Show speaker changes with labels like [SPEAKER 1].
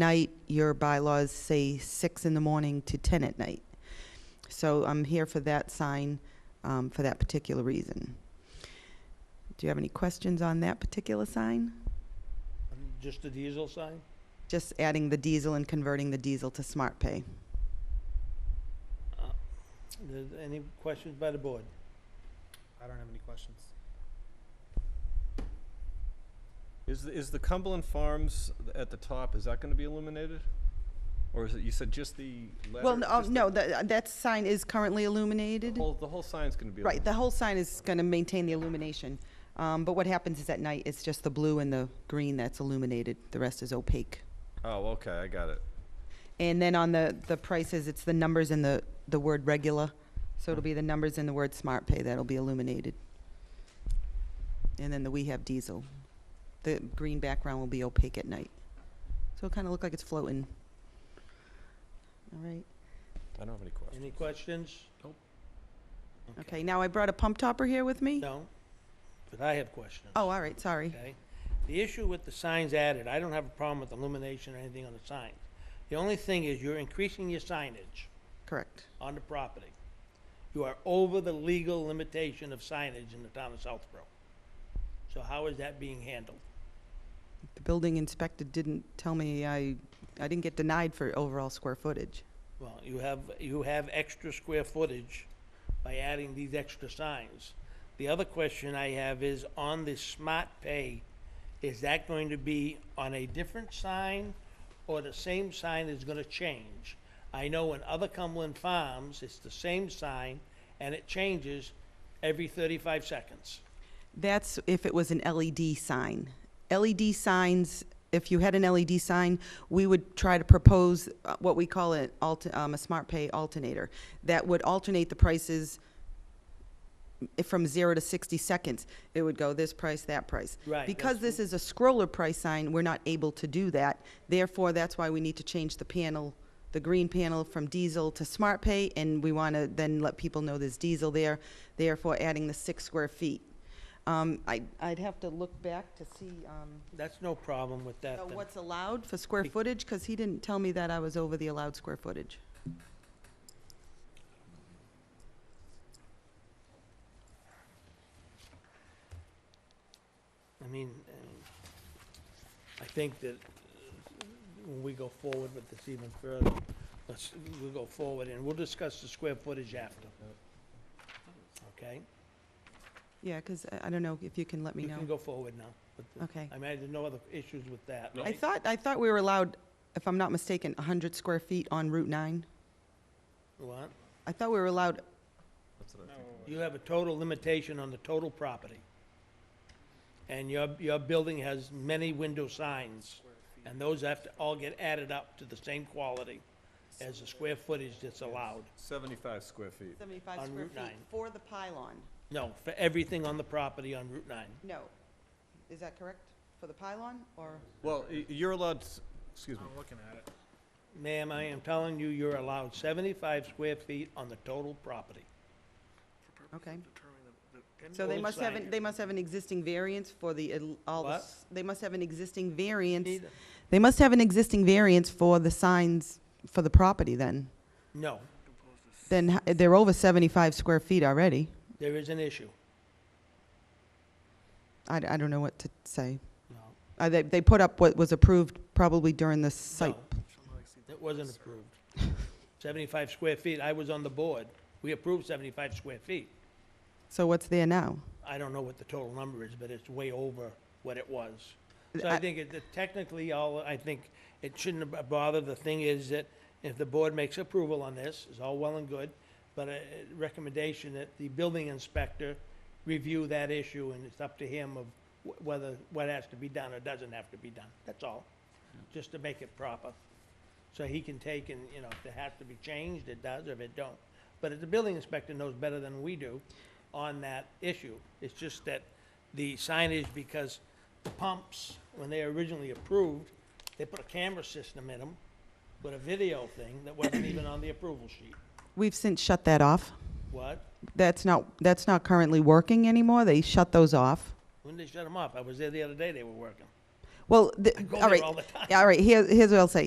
[SPEAKER 1] night, your bylaws say six in the morning to ten at night. So I'm here for that sign, um, for that particular reason. Do you have any questions on that particular sign?
[SPEAKER 2] Just the diesel sign?
[SPEAKER 1] Just adding the diesel and converting the diesel to smart pay.
[SPEAKER 2] There's Any questions by the board?
[SPEAKER 3] I don't have any questions.
[SPEAKER 4] Is, the- is the Cumberland Farms at the top, is that gonna be illuminated? Or is it, you said just the letter?
[SPEAKER 1] Well, no, oh,
[SPEAKER 4] just the-
[SPEAKER 1] no, the- that sign is currently
[SPEAKER 4] The
[SPEAKER 1] illuminated.
[SPEAKER 4] whole, the whole sign's gonna be
[SPEAKER 1] Right,
[SPEAKER 4] illuminated?
[SPEAKER 1] the whole sign is going to maintain the illumination. Um, But what happens is at night, it's just the blue and the green that's illuminated. The rest is opaque.
[SPEAKER 4] Oh, okay, I got it.
[SPEAKER 1] And then on the, the prices, it's the numbers and the, the word regular. So it'll be the numbers and the word smart pay that'll be illuminated. And then the we have diesel. The green background will be opaque at night. So it'll kind of look like it's floating. All right.
[SPEAKER 4] I don't have any questions.
[SPEAKER 2] Any questions?
[SPEAKER 1] Okay, now I brought a pump topper here with me.
[SPEAKER 2] No? But I have questions.
[SPEAKER 1] Oh, all right, sorry.
[SPEAKER 2] Okay? The issue with the signs added, I don't have a problem with illumination or anything on the sign. The only thing is you're increasing your signage
[SPEAKER 1] Correct.
[SPEAKER 2] on the property. You are over the legal limitation of signage in the town of Southborough. So how is that being handled?
[SPEAKER 1] The building inspector didn't tell me I, I didn't get denied for overall square footage.
[SPEAKER 2] Well, you have, you have extra square footage by adding these extra signs. The other question I have is on the smart pay, is that going to be on a different sign or the same sign is gonna change? I know in other Cumberland farms, it's the same sign and it changes every thirty-five seconds.
[SPEAKER 1] That's if it was an LED sign. LED signs, if you had an LED sign, we would try to propose uh, what we call an alt, um, a smart pay alternator. That would alternate the prices i- from zero to sixty seconds. It would go this price, that price.
[SPEAKER 2] Right,
[SPEAKER 1] Because
[SPEAKER 2] that's-
[SPEAKER 1] this is a scroller price sign, we're not able to do that. Therefore, that's why we need to change the panel, the green panel from diesel to smart pay, and we want to then let people know there's diesel there, therefore adding the six square feet. Um, I, I'd have to look back to see, um,
[SPEAKER 2] That's no problem with that
[SPEAKER 1] uh,
[SPEAKER 2] then.
[SPEAKER 1] what's allowed for square
[SPEAKER 2] Be-
[SPEAKER 1] footage, because he didn't tell me that I was over the allowed square footage.
[SPEAKER 2] I mean, um, I think that uh, when we go forward with this even further, let's, we'll go forward and we'll discuss the square footage after. Okay?
[SPEAKER 1] Yeah, because I, I don't know if you can let me
[SPEAKER 2] You
[SPEAKER 1] know.
[SPEAKER 2] can go forward now. with the-
[SPEAKER 1] Okay.
[SPEAKER 2] I mean, I had no other issues with that.
[SPEAKER 1] I thought, I thought we were allowed, if I'm not mistaken, hundred square feet on Route nine.
[SPEAKER 2] What?
[SPEAKER 1] I thought we were allowed,
[SPEAKER 4] That's what I think.
[SPEAKER 2] You have a total limitation on the total property. And your, your building has many window signs, and those have to all get added up to the same quality as the square footage that's allowed.
[SPEAKER 4] Seventy-five square feet.
[SPEAKER 1] seventy-five
[SPEAKER 2] On
[SPEAKER 1] square
[SPEAKER 2] Route
[SPEAKER 1] feet
[SPEAKER 2] 9.
[SPEAKER 1] for the pylon.
[SPEAKER 2] No, for everything on the property on Route 9.
[SPEAKER 1] No. Is that correct? For the pylon or?
[SPEAKER 4] Well, y- you're allowed, s- excuse me,
[SPEAKER 3] I'm looking at it.
[SPEAKER 2] Ma'am, I am telling you, you're allowed 75 square feet on the total property.
[SPEAKER 1] Okay.
[SPEAKER 3] Determine
[SPEAKER 1] So they
[SPEAKER 2] Old
[SPEAKER 1] must have, an-
[SPEAKER 2] sign.
[SPEAKER 1] they must have an existing variance for the, el- all the,
[SPEAKER 2] What?
[SPEAKER 1] s- they must have an existing variance.
[SPEAKER 2] Need-
[SPEAKER 1] They must have an existing variance for the signs for the property then.
[SPEAKER 2] No,
[SPEAKER 1] Then h- they're over 75 square feet already.
[SPEAKER 2] there is an issue.
[SPEAKER 1] I, I don't know what to say.
[SPEAKER 2] No,
[SPEAKER 1] Uh, They, they put up what was approved probably during the site.
[SPEAKER 2] No. it wasn't approved. 75 square feet, I was on the board. We approved 75 square feet.
[SPEAKER 1] So what's there now?
[SPEAKER 2] I don't know what the total number is, but it's way over what it was. So I
[SPEAKER 1] I-
[SPEAKER 2] think it, that technically, all, I think it shouldn't have bothered. The thing is that if the board makes approval on this, it's all well and good, but a a recommendation that the building inspector review that issue, and it's up to him of wh- whether, what has to be done or doesn't have to be done. That's all, just to make it proper. So he can take and, you know, if it has to be changed, it does, or if it don't. But if the building inspector knows better than we do on that issue. It's just that the signage, because the pumps, when they originally approved, they put a camera system in them with a video thing that wasn't even on the approval sheet.
[SPEAKER 1] We've since shut that off.
[SPEAKER 2] What?
[SPEAKER 1] That's not, that's not currently working anymore. They shut those off.
[SPEAKER 2] When they shut them off? I was there the other day, they were working.
[SPEAKER 1] Well, the,
[SPEAKER 2] I go
[SPEAKER 1] all
[SPEAKER 2] there
[SPEAKER 1] right.
[SPEAKER 2] all the time.
[SPEAKER 1] Yeah, all right, here, here's what I'll say.